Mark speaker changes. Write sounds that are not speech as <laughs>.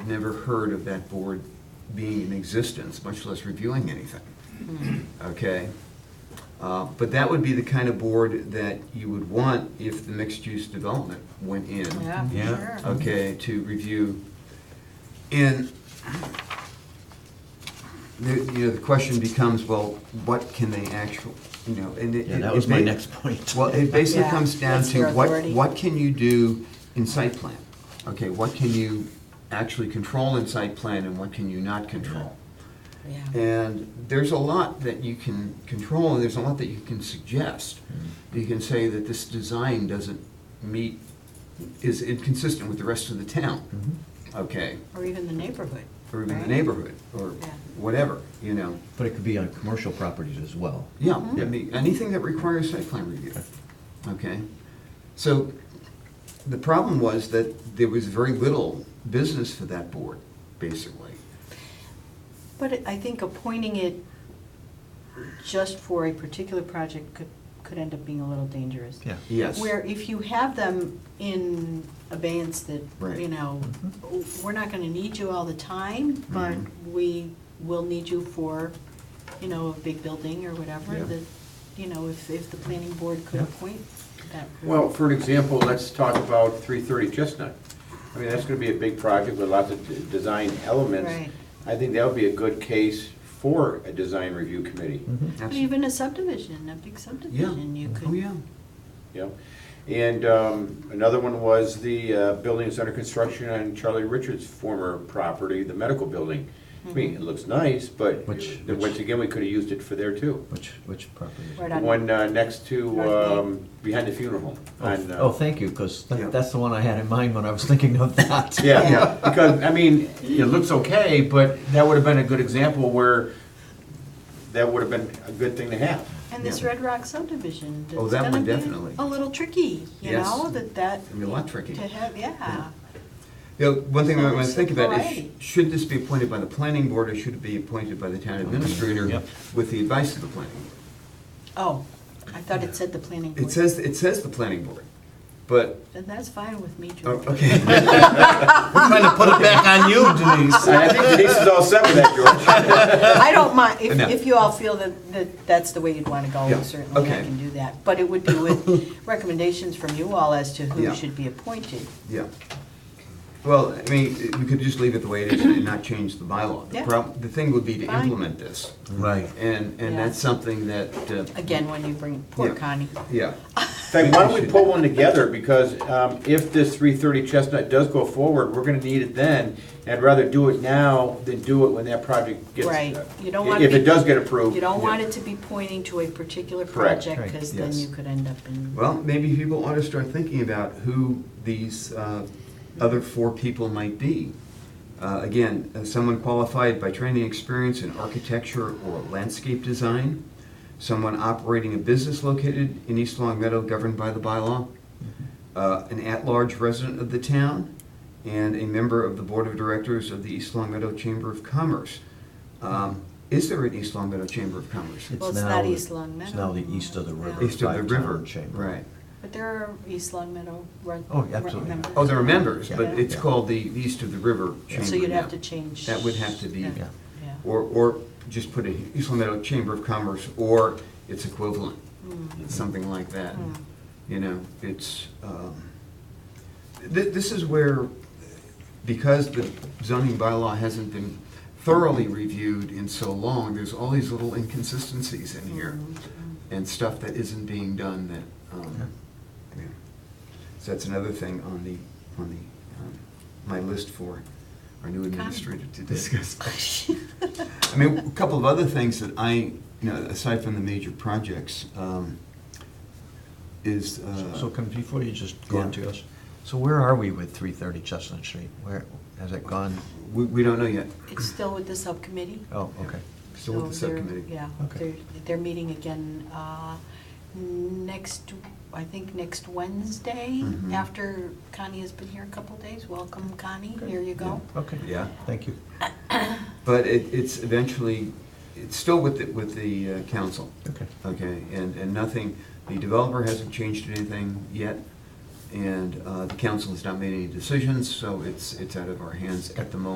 Speaker 1: had never heard of that board being in existence, much less reviewing anything. Okay? Uh, But that would be the kind of board that you would want if the mixed-use development went in.
Speaker 2: Yeah,
Speaker 3: Yeah.
Speaker 2: for sure.
Speaker 1: Okay, to review. And, the- you know, the question becomes, well, what can they actually, you know, and it.
Speaker 3: Yeah, that
Speaker 1: it-
Speaker 3: was my
Speaker 1: it-
Speaker 3: next point.
Speaker 1: Well, it basically
Speaker 2: Yeah,
Speaker 1: comes down
Speaker 2: what's
Speaker 1: to
Speaker 2: their
Speaker 1: what,
Speaker 2: authority?
Speaker 1: what can you do in site plan? Okay, what can you actually control in site plan and what can you not control?
Speaker 2: Yeah.
Speaker 1: And there's a lot that you can control, and there's a lot that you can suggest. You can say that this design doesn't meet, is inconsistent with the rest of the town. Okay,
Speaker 2: Or even the neighborhood.
Speaker 1: or even the
Speaker 2: right?
Speaker 1: neighborhood, or
Speaker 2: Yeah.
Speaker 1: whatever, you know.
Speaker 3: But it could be on commercial properties as well.
Speaker 1: Yeah,
Speaker 2: Mm-hmm.
Speaker 1: I mean, anything that requires site plan review, okay? So the problem was that there was very little business for that board, basically.
Speaker 2: But it- I think appointing it just for a particular project could, could end up being a little dangerous.
Speaker 3: Yeah.
Speaker 1: Yes.
Speaker 2: Where if you have them in abeyance that, you
Speaker 1: Right.
Speaker 2: know, we're not gonna need you all the time, but
Speaker 1: Mhm.
Speaker 2: we will need you for, you know, a big building or whatever,
Speaker 3: Yeah.
Speaker 2: that, you know, if, if the planning board could
Speaker 3: Yeah.
Speaker 2: appoint that.
Speaker 4: Well, for an example, let's talk about 330 Chestnut. I mean, that's going to be a big project with lots of d- design elements.
Speaker 2: Right.
Speaker 4: I think that would be a good case for a design review committee,
Speaker 3: Mm-hmm.
Speaker 2: But
Speaker 1: Absolutely.
Speaker 2: Even a subdivision, a big subdivision, you could.
Speaker 1: Oh, yeah.
Speaker 4: you know? And um, another one was the uh, buildings under construction on Charlie Richards' former property, the medical building. I mean, it looks nice, but
Speaker 3: Which-
Speaker 4: then once again, we could have used it for there too.
Speaker 3: Which, which property?
Speaker 2: Right
Speaker 4: The
Speaker 2: on-
Speaker 4: one uh, next to,
Speaker 2: North Main.
Speaker 4: um, behind the funeral home. on, uh,
Speaker 3: Oh, thank you, because
Speaker 1: Yeah.
Speaker 3: that's the one I had in mind when I was thinking of
Speaker 1: <laughs>
Speaker 3: that.
Speaker 4: Yeah, yeah, because, I mean, it looks okay, but that would have been a good example where that would have been a good thing to have.
Speaker 2: And this
Speaker 1: Yeah.
Speaker 2: Red Rock subdivision,
Speaker 1: Oh,
Speaker 2: it's
Speaker 1: that one
Speaker 2: gonna be
Speaker 1: definitely.
Speaker 2: a little tricky, you
Speaker 1: Yes.
Speaker 2: know, that that.
Speaker 1: It'll be a lot tricky.
Speaker 2: To have, yeah.
Speaker 1: You know, one thing I want
Speaker 2: Well,
Speaker 1: to think about is,
Speaker 2: variety.
Speaker 1: should this be appointed by the planning board, or should it be appointed by the town administrator
Speaker 3: Yep.
Speaker 1: with the advice of the planning? board?
Speaker 2: Oh, I thought it said the planning board.
Speaker 1: It says, it says the planning board, but,
Speaker 2: Then that's fine with me,
Speaker 1: oh,
Speaker 2: George.
Speaker 3: <laughs>
Speaker 1: okay.
Speaker 3: I'm trying to put it back on you, Denise.
Speaker 4: I think Denise is all set with that, George.
Speaker 2: I don't mind, if,
Speaker 1: No.
Speaker 2: if you all feel that, that that's the way you'd want to
Speaker 1: Yeah,
Speaker 2: go, certainly I
Speaker 1: okay.
Speaker 2: can do that. But it would
Speaker 1: <laughs>
Speaker 2: be with recommendations from you all as to
Speaker 1: Yeah.
Speaker 2: who should be appointed.
Speaker 1: Yeah. Well, I mean, we could just leave it the way it is and not change the bylaw. The
Speaker 2: Yeah.
Speaker 1: prob- The thing would be to
Speaker 2: Fine.
Speaker 1: implement this,
Speaker 3: Right.
Speaker 1: and, and
Speaker 2: Yeah.
Speaker 1: that's something that, uh,
Speaker 2: Again, when you bring, poor
Speaker 1: Yeah.
Speaker 2: Connie.
Speaker 1: yeah,
Speaker 4: In fact, why don't we pull one together, because um, if this 330 Chestnut does go forward, we're gonna need it then. And I'd rather do it now than do it when that project gets.
Speaker 2: Right. You don't wanna
Speaker 4: If it
Speaker 2: be-
Speaker 4: does get approved.
Speaker 2: You don't
Speaker 1: Yeah.
Speaker 2: want it to be pointing to a particular
Speaker 4: Correct.
Speaker 2: project,
Speaker 3: Right,
Speaker 2: because then
Speaker 1: yes.
Speaker 2: you could end up in.
Speaker 1: well, maybe people ought to start thinking about who these uh, other four people might be. Uh, Again, uh, someone qualified by training experience in architecture or landscape design, someone operating a business located in East Long Meadow governed by the bylaw, uh, an at-large resident of the town, and a member of the Board of Directors of the East Long Meadow Chamber of Commerce. Um, Is there an East Long Meadow Chamber of Commerce?
Speaker 2: Well, it's
Speaker 3: now
Speaker 2: not
Speaker 3: the-
Speaker 2: East Long
Speaker 3: It's
Speaker 2: Meadow
Speaker 3: now the east of the
Speaker 2: anymore.
Speaker 3: river.
Speaker 1: East of the
Speaker 3: five-town
Speaker 1: river,
Speaker 3: chamber.
Speaker 1: right.
Speaker 2: But there are East Long Meadow run.
Speaker 3: Oh, yeah, absolutely.
Speaker 2: members.
Speaker 1: Oh, there are members, but
Speaker 2: Yeah.
Speaker 1: it's
Speaker 3: Yeah.
Speaker 1: called the East of the River Chamber
Speaker 2: So you'd
Speaker 1: now.
Speaker 2: have to change.
Speaker 1: That would have to be-
Speaker 2: Yeah.
Speaker 3: Yeah.
Speaker 2: yeah.
Speaker 1: Or, or just put a East Long Meadow Chamber of Commerce or its equivalent, something like that.
Speaker 2: Mm.
Speaker 1: You know, it's, um, th- this is where, because the zoning bylaw hasn't been thoroughly reviewed in so long, there's all these little inconsistencies in here
Speaker 2: Mm-hmm.
Speaker 1: and stuff that isn't being done that, um, yeah. So that's another thing on the, on the, um, my list for our new administrator to discuss. I mean, a couple of other things that I, you know, aside from the major projects, um, is, uh,
Speaker 3: So can, before you just go on
Speaker 1: Yeah.
Speaker 3: to us, so where are we with three thirty Chestnut Street? Where, has it gone?
Speaker 1: we, we don't know yet,
Speaker 2: <laughs> It's still with the subcommittee.
Speaker 3: Oh, okay.
Speaker 1: still with the
Speaker 2: So they're-
Speaker 1: subcommittee.
Speaker 2: Yeah, they're,
Speaker 3: Okay.
Speaker 2: they're meeting again uh, next, I think next Wednesday,
Speaker 1: Mhm.
Speaker 2: after Connie has been here a couple days. Welcome, Connie,
Speaker 3: Good.
Speaker 2: here you go.
Speaker 3: Okay.
Speaker 1: Yeah.
Speaker 3: Thank you.
Speaker 1: But it, it's eventually, it's still with the, with the uh, council.
Speaker 3: Okay.
Speaker 1: Okay, and, and nothing, the developer hasn't changed anything yet, and uh, the council has not made any decisions, so it's, it's out of our hands at the moment.